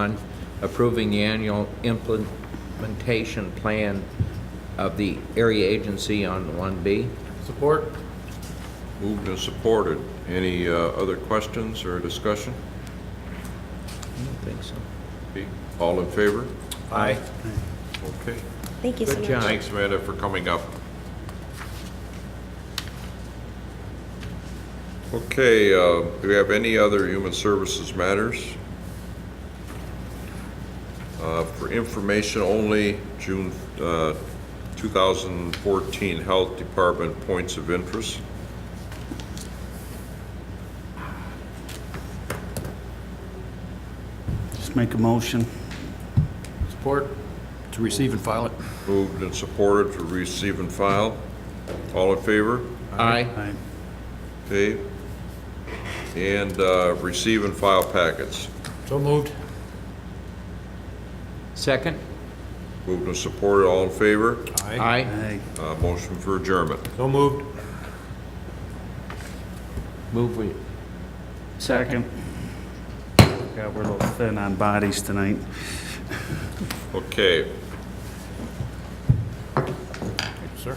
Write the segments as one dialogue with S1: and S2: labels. S1: on approving the annual implementation plan of the area agency on 1B.
S2: Support?
S3: Moved and supported. Any uh, other questions or discussion?
S1: I don't think so.
S3: All in favor?
S1: Aye.
S3: Okay.
S4: Thank you so
S1: Good
S4: much.
S1: job.
S3: Thanks, Amanda, for coming up. Okay, uh, do we have any other human services matters? Uh, For information only, June uh, 2014 Health Department Points of Interest.
S5: Just make a motion.
S2: Support? To receive and file it.
S3: Moved and supported to receive and file. All in favor?
S1: Aye.
S5: Aye.
S3: Okay. And uh, receive and file packets.
S2: So moved?
S1: Second?
S3: Moved and supported, all in favor?
S1: Aye.
S5: Aye.
S3: Uh, Motion for adjournment.
S2: So moved?
S1: Move we,
S5: Second. Got we're a little thin on bodies tonight.
S3: Okay.
S2: Sir.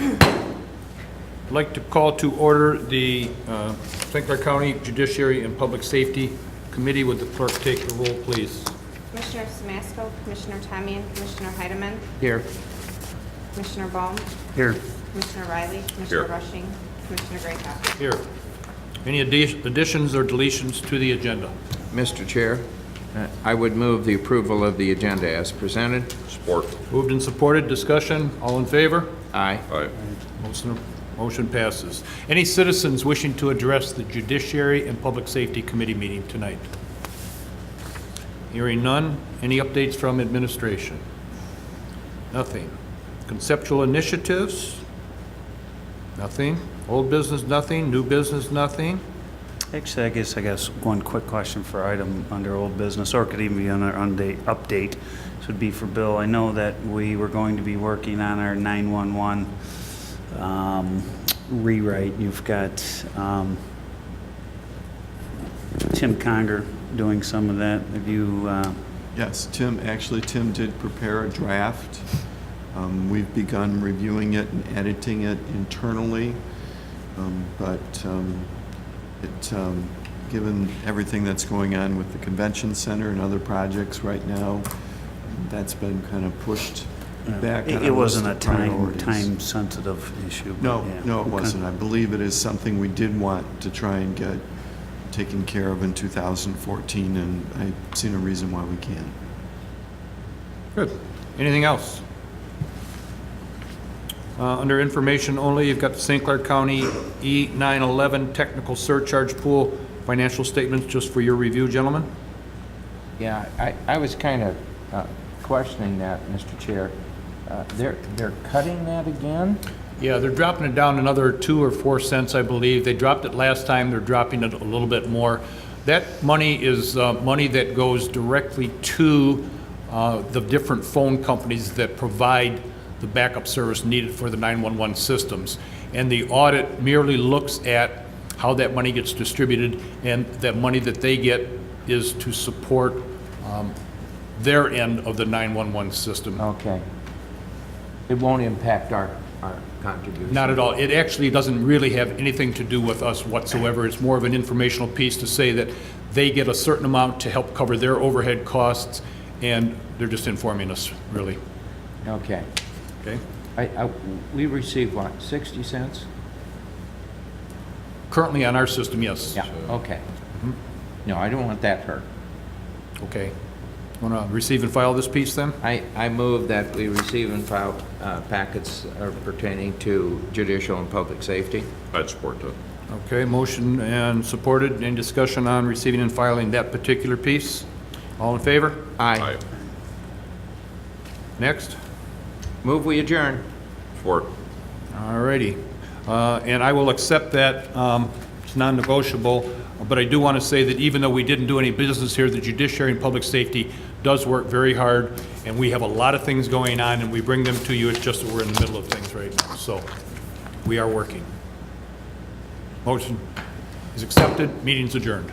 S2: I'd like to call to order the uh, St. Clair County Judiciary and Public Safety Committee. Would the clerk take the roll, please?
S6: Commissioner Samasco, Commissioner Tamian, Commissioner Heidemann,
S1: here.
S6: Commissioner Baum,
S5: Here.
S6: Commissioner Riley, Commissioner
S3: Here.
S6: Rushing, Commissioner Greathouse.
S2: Here. Any addi- additions or deletions to the agenda?
S1: Mr. Chair, uh, I would move the approval of the agenda as presented.
S3: Support.
S2: Moved and supported, discussion, all in favor?
S1: Aye.
S3: Aye.
S2: Motion- Motion passes. Any citizens wishing to address the Judiciary and Public Safety Committee meeting tonight? Hearing none. Any updates from administration? Nothing. Conceptual initiatives? Nothing. Old business, nothing. New business, nothing.
S5: Actually, I guess I got s- one quick question for item under old business, or it could even be under unda- update. This would be for Bill. I know that we were going to be working on our 911 um, rewrite. You've got um, Tim Conger doing some of that. Have you, uh,
S7: Yes, Tim, actually, Tim did prepare a draft. Um, We've begun reviewing it and editing it internally, Um, but um, it, um, given everything that's going on with the convention center and other projects right now, that's been kind of pushed back.
S5: it
S7: on
S5: it
S7: our
S5: wasn't a
S7: list of
S5: time,
S7: priorities.
S5: time-sensitive issue. but
S7: No,
S5: yeah.
S7: no, it
S5: Okay.
S7: wasn't. I believe it is something we did want to try and get taken care of in 2014, and I see no reason why we can't.
S2: Good. Anything else? Uh, Under information only, you've got the St. Clair County E-911 Technical Surcharge Pool Financial Statements, just for your review, gentlemen.
S1: Yeah, I, I was kind of uh, questioning that, Mr. Chair. Uh, They're, they're cutting that again?
S2: Yeah, they're dropping it down another two or four cents, I believe. They dropped it last time, they're dropping it a little bit more. That money is uh, money that goes directly to uh, the different phone companies that provide the backup service needed for the 911 systems. And the audit merely looks at how that money gets distributed, and that money that they get is to support um, their end of the 911 system.
S1: Okay. It won't impact our, our contribution?
S2: Not at all. It actually doesn't really have anything to do with us whatsoever. It's more of an informational piece to say that they get a certain amount to help cover their overhead costs, and they're just informing us, really.
S1: Okay.
S2: Okay?
S1: I, I, we received what, 60 cents?
S2: Currently on our system, yes.
S1: Okay. No, I don't want that hurt.
S2: Okay. Want to receive and file this piece, then?
S1: I, I move that we receive and file uh, packets uh, pertaining to judicial and public safety.
S3: I'd support that.
S2: Okay, motion and supported. Any discussion on receiving and filing that particular piece? All in favor?
S1: Aye.
S2: Next.
S1: Move we adjourn.
S3: Support.
S2: All righty. Uh, And I will accept that, um, it's non-negotiable, but I do want to say that even though we didn't do any business here, the judiciary and public safety does work very hard, and we have a lot of things going on, and we bring them to you, it's just that we're in the middle of things right now, so we are working. Motion is accepted, meeting's adjourned.